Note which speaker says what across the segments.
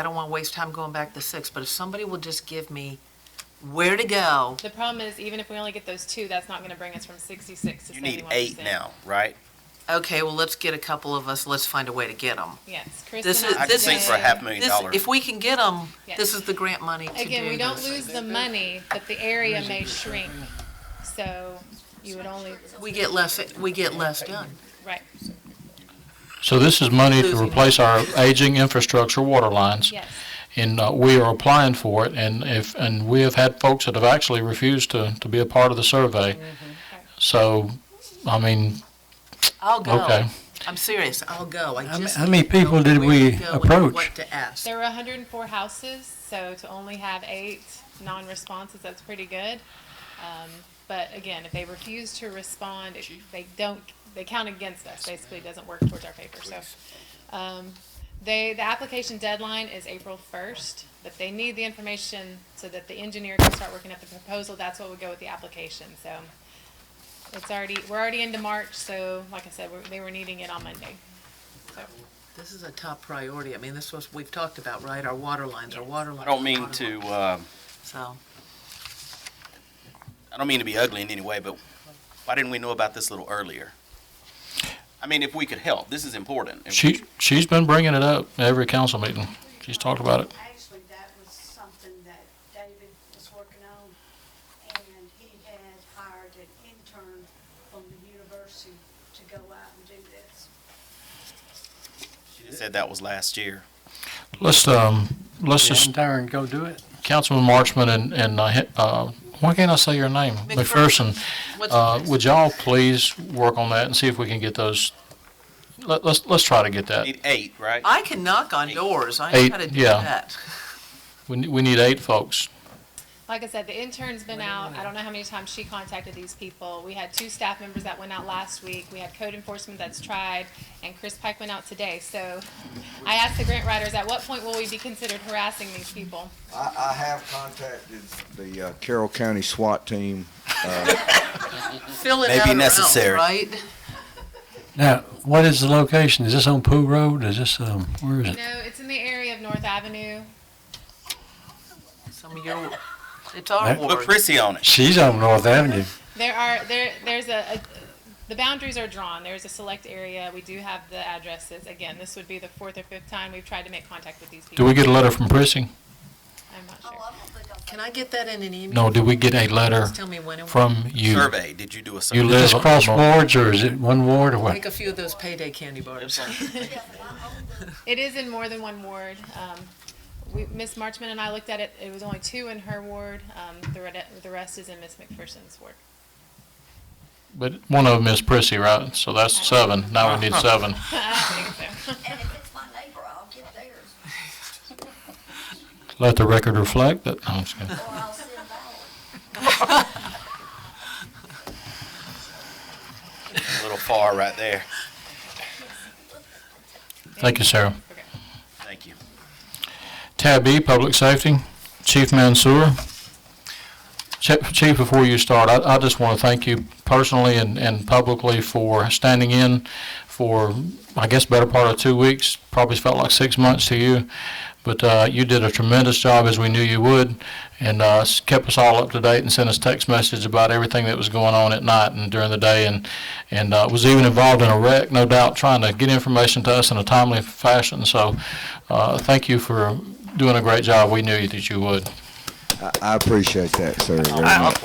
Speaker 1: I don't want to waste time going back to six, but if somebody will just give me where to go,
Speaker 2: The problem is, even if we only get those two, that's not gonna bring us from sixty-six to
Speaker 3: You
Speaker 2: seventy-one
Speaker 3: need
Speaker 2: percent.
Speaker 3: eight now, right?
Speaker 1: okay, well, let's get a couple of us, let's find a way to get them.
Speaker 2: Yes,
Speaker 1: This
Speaker 2: Kristen.
Speaker 1: is-
Speaker 2: has
Speaker 3: I could
Speaker 1: this
Speaker 3: think
Speaker 1: is-
Speaker 3: for a half
Speaker 2: today-
Speaker 3: million
Speaker 1: This,
Speaker 3: dollars.
Speaker 1: if we can get them, this
Speaker 2: Yes.
Speaker 1: is the grant money to do
Speaker 2: Again, we don't
Speaker 1: this.
Speaker 2: lose the money, but the area may shrink, so you would only,
Speaker 1: We get less, we get less done.
Speaker 2: right,
Speaker 4: So this is money to
Speaker 1: Losing.
Speaker 4: replace our aging infrastructure water lines,
Speaker 2: yes.
Speaker 4: and uh, we are applying for it, and if, and we have had folks that have actually refused to, to be a part of the survey. So, I mean,
Speaker 1: I'll go.
Speaker 4: okay.
Speaker 1: I'm serious, I'll go. I
Speaker 5: How ma-
Speaker 1: just
Speaker 5: how many
Speaker 1: need to know
Speaker 5: people did
Speaker 1: where
Speaker 5: we
Speaker 1: to go and
Speaker 5: approach?
Speaker 1: What to ask.
Speaker 2: There were hundred and four houses, so to only have eight non-responses, that's pretty good. Um, but again, if they refuse to respond, it- they don't, they count against us, basically, it doesn't work towards our paper, so. Um, they, the application deadline is April first, but they need the information so that the engineer can start working up the proposal, that's what would go with the application, so. It's already, we're already into March, so like I said, we're- they were needing it on Monday. So,
Speaker 1: This is a top priority. I mean, this was, we've talked about, right, our water lines, our
Speaker 2: Yes.
Speaker 1: water lines.
Speaker 3: I don't mean
Speaker 1: water
Speaker 3: to,
Speaker 1: lines.
Speaker 3: uh,
Speaker 1: So,
Speaker 3: I don't mean to be ugly in any way, but why didn't we know about this a little earlier? I mean, if we could help, this is important. If-
Speaker 4: she, she's been bringing it up at every council meeting. She's talked about it.
Speaker 6: Actually, that was something that David was working on, and he had hired an intern from the university to go out and do this.
Speaker 3: She said that was last year.
Speaker 4: Let's, um, let's
Speaker 5: Just
Speaker 4: just,
Speaker 5: turn, go do it.
Speaker 4: Councilman Marchman and, and, uh, he- uh, why can't I say your name?
Speaker 1: McPherson.
Speaker 4: McPherson.
Speaker 1: what's
Speaker 4: Uh,
Speaker 1: the
Speaker 4: would
Speaker 1: next?
Speaker 4: y'all please work on that and see if we can get those, let, let's, let's try to get that.
Speaker 3: Need eight, right?
Speaker 1: I can knock on doors. I know
Speaker 4: Eight,
Speaker 1: how to do
Speaker 4: yeah.
Speaker 1: that.
Speaker 4: We, ne- we need eight folks.
Speaker 2: Like I said, the intern's been out. I don't know how many times she contacted these people. We had two staff members that went out last week. We had code enforcement that's tried, and Chris Pike went out today. So I asked the grant writers, at what point will we be considered harassing these people?
Speaker 7: I, I have contacted the uh, Carroll County SWAT team.
Speaker 1: Fill it
Speaker 3: Maybe
Speaker 1: out around,
Speaker 3: necessary.
Speaker 1: right?
Speaker 5: Now, what is the location? Is this on Pool Road? Is this, um, where is it?
Speaker 2: No, it's in the area of North Avenue.
Speaker 1: Some of your, it's our
Speaker 5: Right.
Speaker 3: Put
Speaker 1: ward.
Speaker 3: Prissy on it.
Speaker 5: She's on North Avenue.
Speaker 2: There are, there, there's a, a- the boundaries are drawn. There's a select area. We do have the addresses. Again, this would be the fourth or fifth time we've tried to make contact with these
Speaker 4: Do
Speaker 2: people.
Speaker 4: we get a letter from Prissy?
Speaker 2: I'm not
Speaker 6: Oh,
Speaker 2: sure.
Speaker 6: I don't think I'll.
Speaker 1: Can I get that in an email?
Speaker 4: No, do we get a letter
Speaker 1: Just tell me when. and where.
Speaker 4: from you?
Speaker 3: Survey, did you do a
Speaker 4: You
Speaker 3: survey?
Speaker 5: Is
Speaker 4: live,
Speaker 5: this cross wards or is it one ward or
Speaker 1: Make
Speaker 5: what?
Speaker 1: a few of those payday candy bars.
Speaker 6: Yeah, but I own the
Speaker 2: It is in more than one ward. Um, we, Ms. Marchman and I looked at it, it was only two in her ward, um, the red, the rest is in Ms. McPherson's ward.
Speaker 4: but one of them is Prissy, right? So that's seven. Now we need seven.
Speaker 2: I don't think so.
Speaker 6: And if it's my neighbor, I'll get theirs,
Speaker 4: Let the record reflect that, no, I'm just kidding.
Speaker 6: or I'll send ours.
Speaker 3: A little far right there.
Speaker 4: Thank you, Sarah.
Speaker 3: Thank you.
Speaker 4: Tab E, Public Safety, Chief Mansour. Chief, Chief, before you start, I, I just want to thank you personally and, and publicly for standing in for, I guess, better part of two weeks, probably felt like six months to you. But, uh, you did a tremendous job, as we knew you would, and, uh, s- kept us all up to date and sent us text messages about everything that was going on at night and during the day, and, and, uh, was even involved in a wreck, no doubt, trying to get information to us in a timely fashion. So, uh, thank you for doing a great job. We knew you- that you would.
Speaker 7: I, I appreciate that, sir, very much.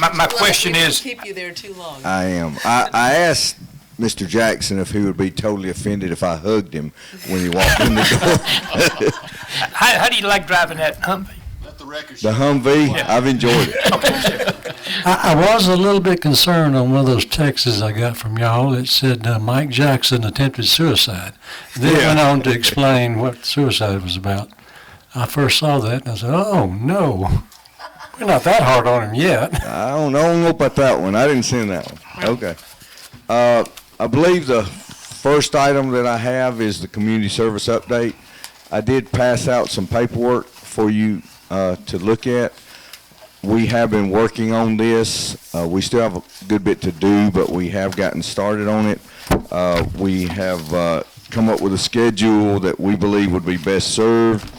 Speaker 8: My, my question
Speaker 1: We won't
Speaker 8: is,
Speaker 1: Keep you there too long.
Speaker 7: I am. I, I asked Mr. Jackson if he would be totally offended if I hugged him when he walked in the door.
Speaker 8: how, how do you like driving that Humvee?
Speaker 7: The Humvee, I've enjoyed it.
Speaker 5: I, I was a little bit concerned on one of those texts I got from y'all. It said uh, Mike Jackson attempted suicide. Then it went on to explain what suicide was about. I first saw that and I said, oh, no. We're not that hard on him yet.
Speaker 7: I don't, I don't know about that one. I didn't send that one. Okay. Uh, I believe the first item that I have is the community service update. I did pass out some paperwork for you, uh, to look at. We have been working on this. Uh, we still have a good bit to do, but we have gotten started on it. Uh, we have, uh, come up with a schedule that we believe would be best served